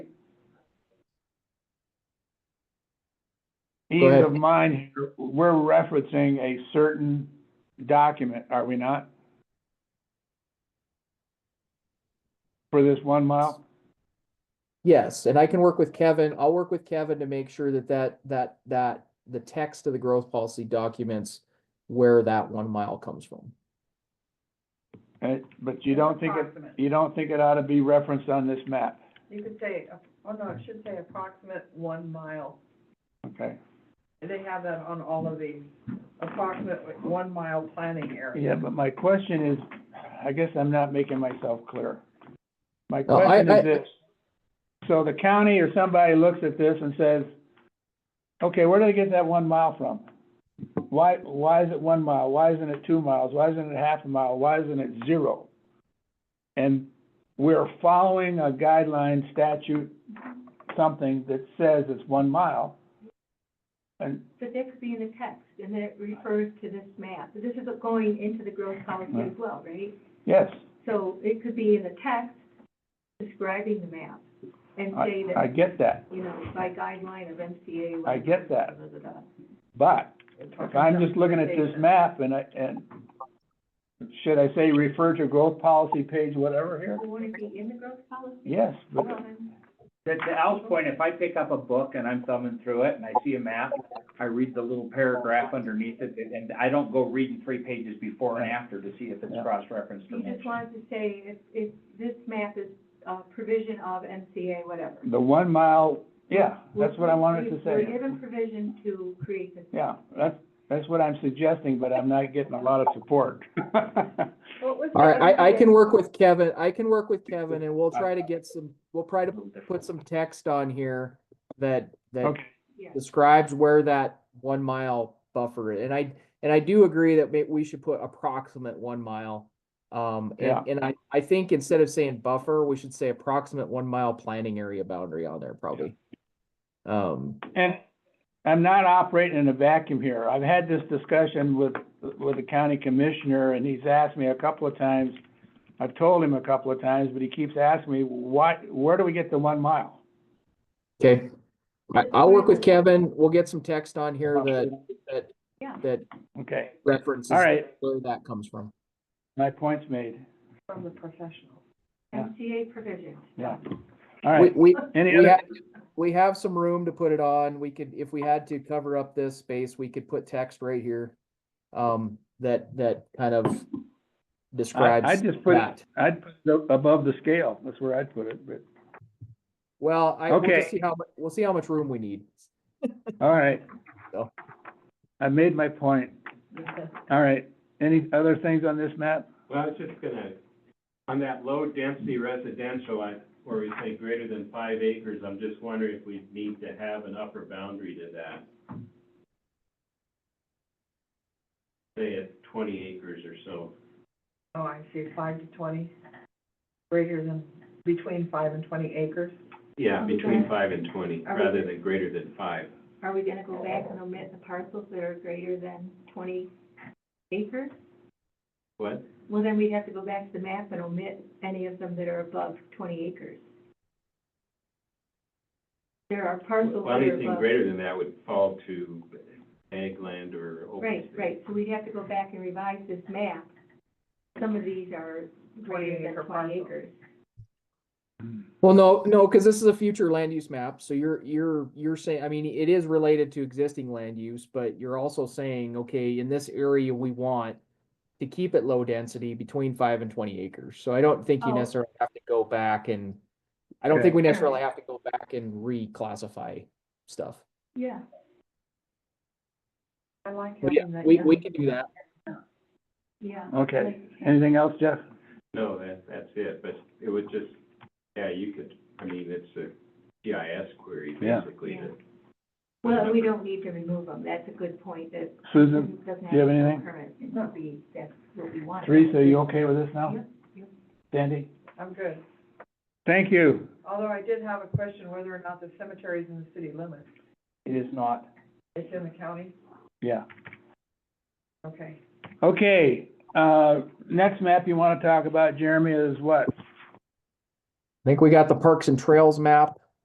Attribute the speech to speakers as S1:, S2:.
S1: ease
S2: ahead.
S1: of mind, here, we're referencing a certain document, are we not? For this one mile?
S2: Yes, and I can work with Kevin. I'll work with Kevin to make sure that that that that the text of the growth policy documents where that one mile comes from.
S1: Uh, But you don't think it,
S3: Approximate.
S1: you don't think it ought to be referenced on this map?
S3: You could say, uh, oh no, it should say approximate one mile.
S1: Okay.
S3: They have that on all of these, approximate one mile planning area.
S1: Yeah, but my question is, I guess I'm not making myself clear. My
S2: No, I-
S1: question
S2: I-
S1: is this, so the county or somebody looks at this and says, okay, where did I get that one mile from? Why, why is it one mile? Why isn't it two miles? Why isn't it half a mile? Why isn't it zero? And we're following a guideline statute, something that says it's one mile. And,
S4: But that could be in the text, and that refers to this map. This is going into the growth policy as well, right?
S1: yes,
S4: So it could be in the text describing the map and say
S1: I, I
S4: that,
S1: get that,
S4: you know, by guideline of MCA.
S1: I get that.
S4: da, da, da, da.
S1: but If I'm just looking at this map and I, and should I say refer to growth policy page whatever here?
S4: Well, Would it be in the growth policy?
S1: Yes, but
S4: Well, then,
S5: To, to Al's point, if I pick up a book and I'm thumbing through it and I see a map, I read the little paragraph underneath it, and- and I don't go reading three pages before and after to see if it's
S1: Yeah.
S5: cross-referenced
S4: You
S5: or
S4: just
S5: mentioned.
S4: wanted to say if, if this map is a provision of MCA, whatever.
S1: the one mile, yeah, that's what I wanted to
S4: We're
S1: say.
S4: given provision to create this.
S1: Yeah, that's, that's what I'm suggesting, but I'm not getting a lot of support.
S3: What was the
S2: All right, I I can
S3: other thing?
S2: work with Kevin. I can work with Kevin and we'll try to get some, we'll try to put some text on here that that
S1: Okay,
S4: Yeah.
S2: describes where that one mile buffer is. And I, and I do agree that may, we should put approximate one mile. Um,
S1: Yeah.
S2: and, and I, I think instead of saying buffer, we should say approximate one mile planning area boundary on there probably. Um,
S1: and I'm not operating in a vacuum here. I've had this discussion with, with the county commissioner and he's asked me a couple of times. I've told him a couple of times, but he keeps asking me, what, where do we get the one mile?
S2: okay. I, I'll work with Kevin. We'll get some text on here that, that,
S4: Yeah.
S2: that
S1: Okay,
S2: references
S1: all right.
S2: where that comes from.
S1: My point's made,
S3: From the professional.
S1: Yeah.
S4: MCA provision.
S1: yeah. All
S2: We,
S1: right,
S2: we,
S1: any
S2: we
S1: other,
S2: have, we have some room to put it on. We could, if we had to cover up this space, we could put text right here. Um, that, that kind of
S1: I,
S2: describes
S1: I'd just put, it-
S2: that.
S1: I'd put it above the scale, that's where I'd put it, but,
S2: Well, I, we'll
S1: Okay.
S2: just see how, mu- we'll see how much room we need.
S1: all right.
S2: So.
S1: I made my point, all right, any other things on this map?
S6: Well, I was just gonna, on that low density residential, I, where we say greater than five acres, I'm just wondering if we need to have an upper boundary to that. Say at twenty acres or so.
S3: Oh, I see, five to twenty, greater than, between five and twenty acres.
S6: Yeah, between five and twenty,
S3: Are we-
S6: rather than greater than five.
S4: Are we gonna go back and omit the parcels that are greater than twenty acres?
S6: What?
S4: Well, then we'd have to go back to the map and omit any of them that are above twenty acres. There are parcels
S6: Well,
S4: that are
S6: anything
S4: above.
S6: greater than that would fall to ag land or open
S4: Right,
S6: space.
S4: right, so we'd have to go back and revise this map. Some of these are
S3: 20
S4: greater
S3: acre
S4: than twenty
S3: parcels.
S4: acres.
S2: Well, no, no, because this is a future land use map, so you're, you're, you're saying, I mean, it is related to existing land use, but you're also saying, okay, in this area, we want to keep it low density between five and twenty acres, so I don't think you
S4: Oh.
S2: necessarily have to go back and I don't think
S1: Okay.
S2: we necessarily have to go back and reclassify stuff.
S4: Yeah.
S3: I like
S2: But yeah,
S3: having that.
S2: we,
S3: yeah.
S2: we can do that.
S4: Yeah.
S1: Okay, anything else, Jeff?
S6: No, that, that's it, but it would just, yeah, you could, I mean, it's a GIS query,
S1: Yeah.
S6: basically, to
S4: Well, we don't need to remove them, that's a good point, that
S1: Susan,
S4: doesn't have to
S1: do you have
S4: be
S1: anything?
S4: permanent. It could be, that's what we want.
S1: Teresa, are you okay with this now?
S4: Yep, yep.
S1: Sandy?
S3: I'm good,
S1: Thank you.
S3: although I did have a question whether or not the cemetery is in the city limits.
S1: It is not.
S3: It's in the county?
S1: Yeah,
S3: Okay.
S1: okay, uh, next map you wanna talk about, Jeremy, is what?
S2: I think we got the Parks and Trails map.